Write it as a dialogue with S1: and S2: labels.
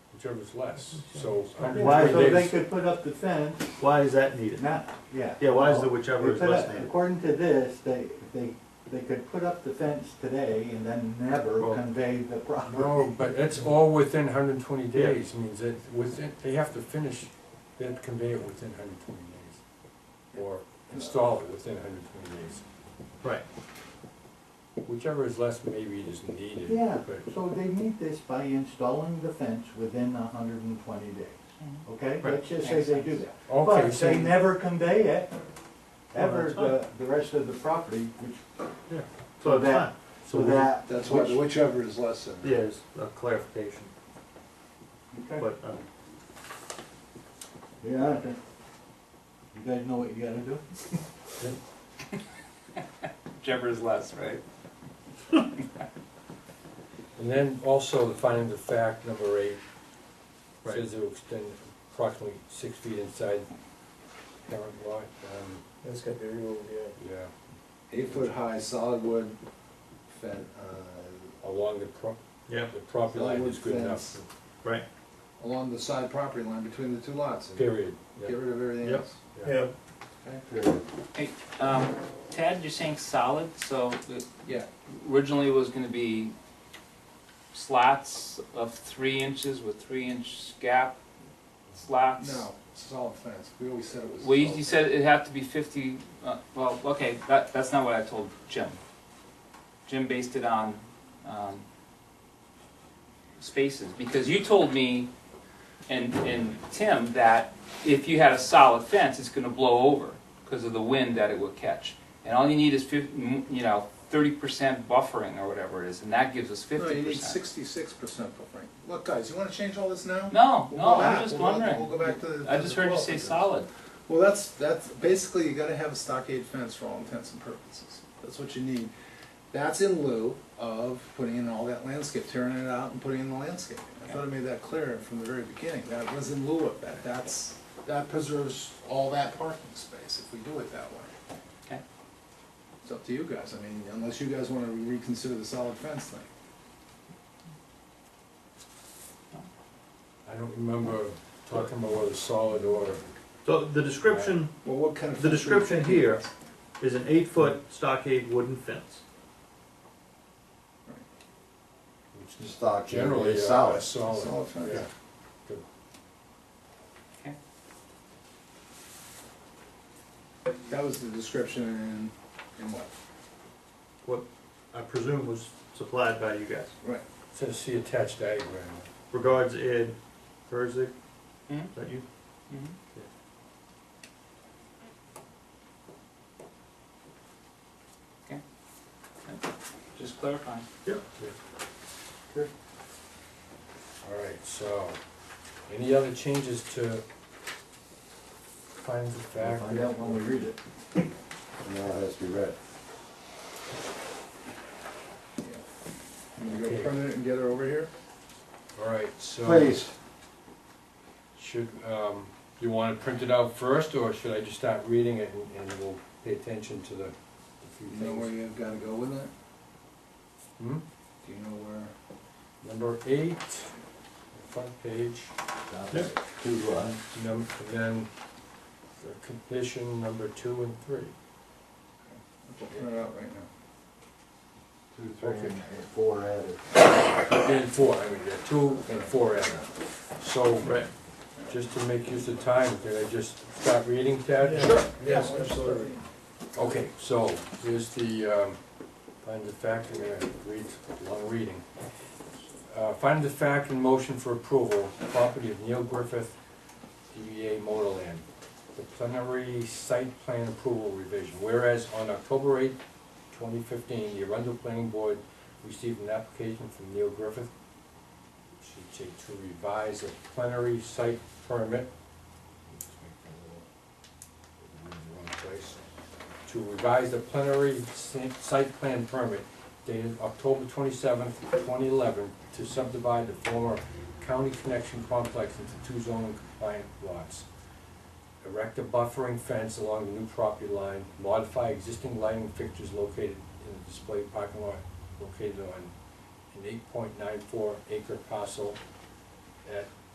S1: whichever's less, so.
S2: Why,
S3: Why
S2: so
S1: days-
S2: they could put up the fence,
S3: Why is that needed?
S2: not, yeah.
S3: Yeah, why is
S2: well,
S3: the whichever
S2: they
S3: is
S2: put
S3: less
S2: up-
S3: needed?
S2: According to this, they, they, they could put up the fence today and then never
S3: Well-
S2: convey the property.
S1: No, but that's all within hundred and twenty days, means that within, they have to finish that conveyor within hundred and twenty days. Or install it within hundred and twenty days.
S3: Right.
S1: Whichever is less, maybe it is needed,
S2: Yeah,
S1: but
S2: so they meet this by installing the fence within hundred and twenty days, okay?
S3: Right.
S2: Let's just say they do that.
S1: Okay,
S2: But
S1: so-
S2: they never convey it, ever,
S3: that's fine.
S2: the, the rest of the property, which,
S3: So it's
S2: that-
S3: fine.
S2: so that.
S4: That's why, whichever is less than.
S3: Yeah, it's a clarification,
S2: Okay.
S3: but, uh,
S2: Yeah, okay. You guys know what you gotta do?
S5: Whichever is less, right?
S1: and then also the finding of fact, number eight,
S3: Right.
S1: says it will extend approximately six feet inside current lot, um,
S6: That's got the real, yeah.
S1: yeah,
S4: Eight foot high solid wood uh, fen,
S1: along the pro,
S3: yeah,
S1: the property line is good enough,
S4: Fence.
S3: right.
S4: uh, along the side property line between the two lots. and
S1: period. Yeah.
S4: Get rid of everything
S3: Yep.
S4: else.
S6: Yeah,
S4: Okay?
S5: Um, Tad, you're saying solid, so it
S4: Yeah,
S5: originally was gonna be slots of three inches with three inch gap slots.
S4: no, solid fence, we always said it was.
S5: Well, you,
S4: solid
S5: you said it'd have to be fifty, uh, well, okay, that, that's not what I told Jim. Jim based it on, um, spaces, because you told me and, and Tim that if you had a solid fence, it's gonna blow over because of the wind that it would catch. And all you need is fif, m- you know, thirty percent buffering or whatever it is, and that gives us
S4: fence. No,
S5: fifty
S4: you need
S5: percent.
S4: sixty-six percent buffering. Look, guys, you wanna change all this now?
S5: No,
S4: We'll
S5: no,
S4: go
S5: I'm
S4: back.
S5: just
S4: We'll go-
S5: wondering.
S4: We'll go back to the.
S5: I
S4: to
S5: just
S4: the
S5: heard you
S4: 12
S5: say
S4: figures.
S5: solid.
S4: Well, that's, that's, basically, you gotta have a stockade fence for all intents and purposes. That's what you need. That's in lieu of putting in all that landscape, tearing it out and putting in the landscape. I thought I made that clear from the very beginning. That was in lieu of that. That's, that preserves all that parking space if we do it that way.
S5: Okay.
S4: It's up to you guys. I mean, unless you guys wanna reconsider the solid fence thing.
S1: I don't remember talking about whether solid or,
S3: So the description
S4: Well, what kind of?
S3: The
S4: fence were you
S3: description
S4: thinking?
S3: here- is an eight-foot stockade wooden fence.
S1: which is
S7: Stock
S1: generally
S7: generally
S1: a a
S7: solid.
S1: solid,
S4: Solid fence.
S1: yeah.
S4: That was the description in, in what?
S3: What I presume was supplied by you guys.
S4: Right.
S1: Says see attached diagram.
S3: Regards, Ed Herzig.
S5: Hmm?
S3: Is that you?
S5: Mhm. Okay. Just clarifying.
S1: All right, so, any other changes to findings of
S2: We'll
S1: fact?
S2: find out when we read it.
S7: Now it has to be read.
S4: You wanna go permanent and get her over here?
S1: All right, so.
S7: Please,
S1: Should, um, you wanna print it out first, or should I just start reading it and, and we'll pay attention to the the few
S4: Do you know where
S1: things?
S4: you've gotta go with it?
S1: Hmm?
S4: Do you know where?
S1: Number eight, front page.
S7: two,
S2: uh,
S7: one.
S1: Num and then the condition number two and three.
S4: We'll print it out right now.
S7: Two, three, and four added.
S1: And four, I mean, yeah, two and four added. So,
S3: Right.
S1: just to make use of time, can I just start reading, Ted?
S6: Yes, absolutely.
S1: Okay, so here's the, um, find the fact, I'm gonna read, long reading. Uh, find the fact and motion for approval, property of Neil Griffith, DBA Motorland. The plenary site plan approval revision, whereas on October eighth, twenty fifteen, the Arundel Planning Board received an application from Neil Griffith, should say to revise a plenary site permit. Let's make a little- Wrong place to revise the plenary si- site plan permit dated October twenty-seventh, twenty eleven, to subdivide the former county connection complex into two zoning compliant lots. Erect a buffering fence along the new property line, modify existing lighting fixtures located in the display parking lot located on an eight point nine four acre parcel at